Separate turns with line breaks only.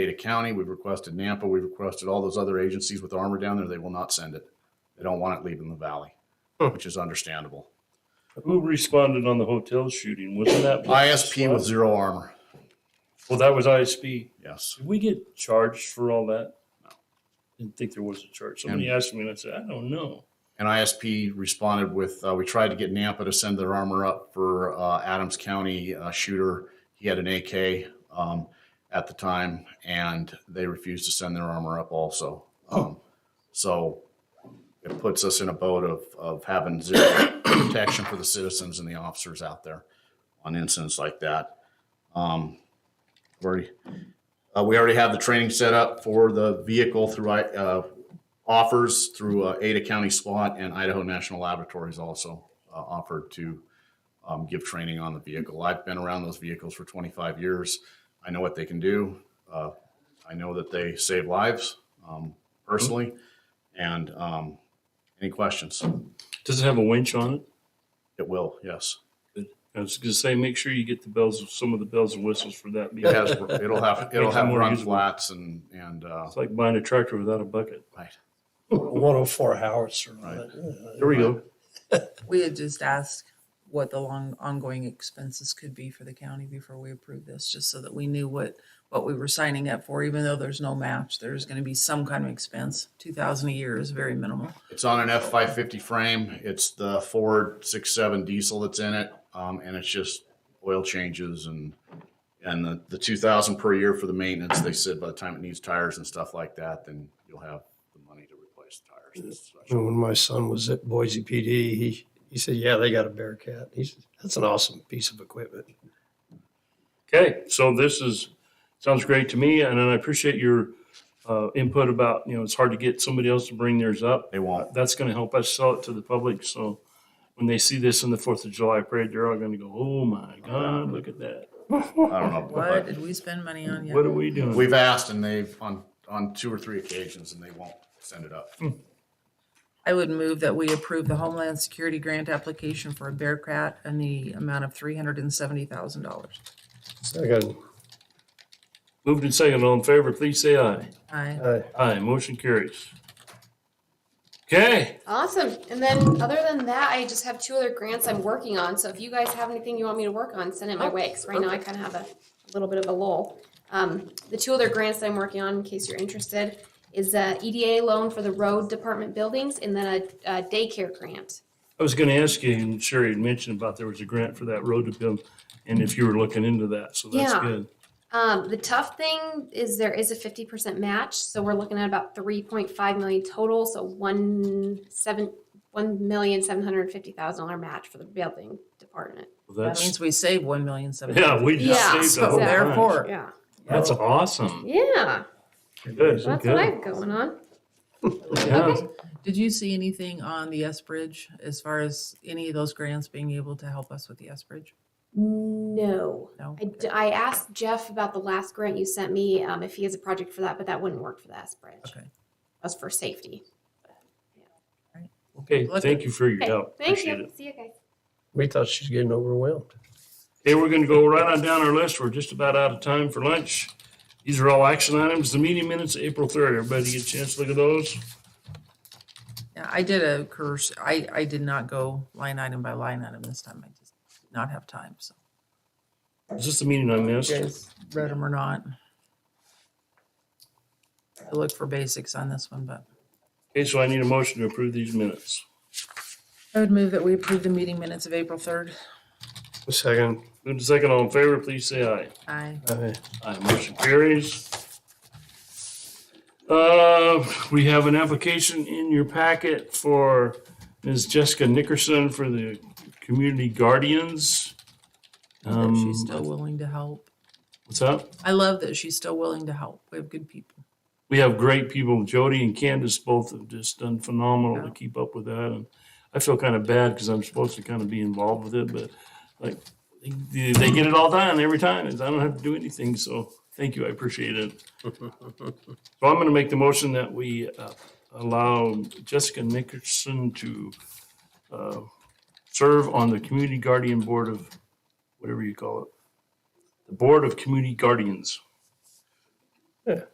Ada County, we've requested Nampa, we've requested all those other agencies with armor down there, they will not send it. They don't want it leaving the valley,
Hmm.
which is understandable.
Who responded on the hotel shooting? Wasn't that
ISP with zero armor,
Well, that was ISP.
yes.
Did we get charged for all that? Didn't think there was a charge. Somebody
And-
asked me, and I said, I don't know.
And ISP responded with, uh, we tried to get Nampa to send their armor up for uh, Adams County uh, shooter. He had an AK um, at the time, and they refused to send their armor up also. Um, so it puts us in a boat of, of having zero protection for the citizens and the officers out there on incidents like that. Um, we already, uh, we already have the training set up for the vehicle through I- uh, offers through uh, Ada County SWAT and Idaho National Laboratories also uh, offered to um, give training on the vehicle. I've been around those vehicles for 25 years. I know what they can do. Uh, I know that they save lives um, personally. And um, any questions?
Does it have a winch on it?
It will, yes.
I was going to say, make sure you get the bells, some of the bells and whistles for that.
It has, it'll have, it'll
Makes it
have
more
run
usable.
flats and, and, uh,
It's like buying a tractor without a bucket.
right.
104 howitzer.
Right.
There we go.
We had just asked what the long, ongoing expenses could be for the county before we approved this, just so that we knew what, what we were signing up for, even though there's no match, there's gonna be some kind of expense. Two thousand a year is very minimal.
It's on an F five fifty frame. It's the Ford six seven diesel that's in it, um, and it's just oil changes and and the the two thousand per year for the maintenance. They said by the time it needs tires and stuff like that, then you'll have the money to replace the tires. and such.
And when my son was at Boise PD, he, he said, yeah, they got a Bearcat. He said, that's an awesome piece of equipment.
Okay, so this is, sounds great to me, and I appreciate your uh, input about, you know, it's hard to get somebody else to bring theirs up.
They won't.
That's going to help us sell it to the public, so when they see this in the Fourth of July parade, they're all going to go, oh my God, look at that.
I don't know.
What
But
did we spend money on yet?
What are we doing?
we've asked, and they've on on two or three occasions, and they won't send it up.
I would move that we approve the Homeland Security Grant application for a Bearcat and the amount of three hundred and seventy thousand dollars.
Second,
Moved and second, all in favor, please say aye.
I,
I,
Aye, motion carries. Okay,
Awesome. And then, other than that, I just have two other grants I'm working on. So if you guys have anything you want me to work on, send it my way. 'cause right now I kind of have a little bit of a lull. Um, the two other grants I'm working on, in case you're interested, is a EDA loan for the road department buildings and then a, a daycare grant.
I was going to ask you, and Sherry had mentioned about there was a grant for that road to build, and if you were looking into that, so that's
Yeah.
good.
Um, the tough thing is there is a 50% match. So we're looking at about 3.5 million total. So one seven one million seven hundred fifty thousand dollar match for the building department.
Well,
that
That's,
means we saved one million seventy.
yeah, we
Yeah,
just saved a
so
whole bunch.
therefore-
Yeah.
That's awesome.
Yeah.
Good,
That's what
good.
I've going on.
Yeah.
Did you see anything on the S Bridge as far as any of those grants being able to help us with the S Bridge?
No.
No?
I, d- I asked Jeff about the last grant you sent me, um, if he has a project for that, but that wouldn't work for the S Bridge.
Okay.
That's for safety.
Okay, thank you for your
Okay,
help.
thank
Appreciate
you.
it.
See you guys.
we thought she was getting overwhelmed.
Okay, we're going to go right on down our list. We're just about out of time for lunch. These are all action items. The meeting minutes, April 3rd. Everybody get a chance to look at those?
Yeah, I did a curse. I, I did not go line item by line item this time. I just did not have time. So
Is this the meeting I missed?
you guys read them or not. I look for basics on this one, but
Okay, so I need a motion to approve these minutes.
I would move that we approve the meeting minutes of April 3rd.
Second,
Move to second, all in favor, please say aye.
Aye.
I,
Aye, motion carries. Uh, we have an application in your packet for Ms. Jessica Nickerson for the Community Guardians.
That
Um,
she's still willing to help.
What's up?
I love that she's still willing to help. We have good people.
We have great people, Jody and Candace both have just done phenomenal to
Yeah.
keep up with that. And I feel kind of bad because I'm supposed to kind of be involved with it, but like, they, they get it all done every time. and I don't have to do anything, so thank you, I appreciate it. So I'm going to make the motion that we uh, allow Jessica Nickerson to uh, serve on the Community Guardian Board of, whatever you call it, the Board of Community Guardians.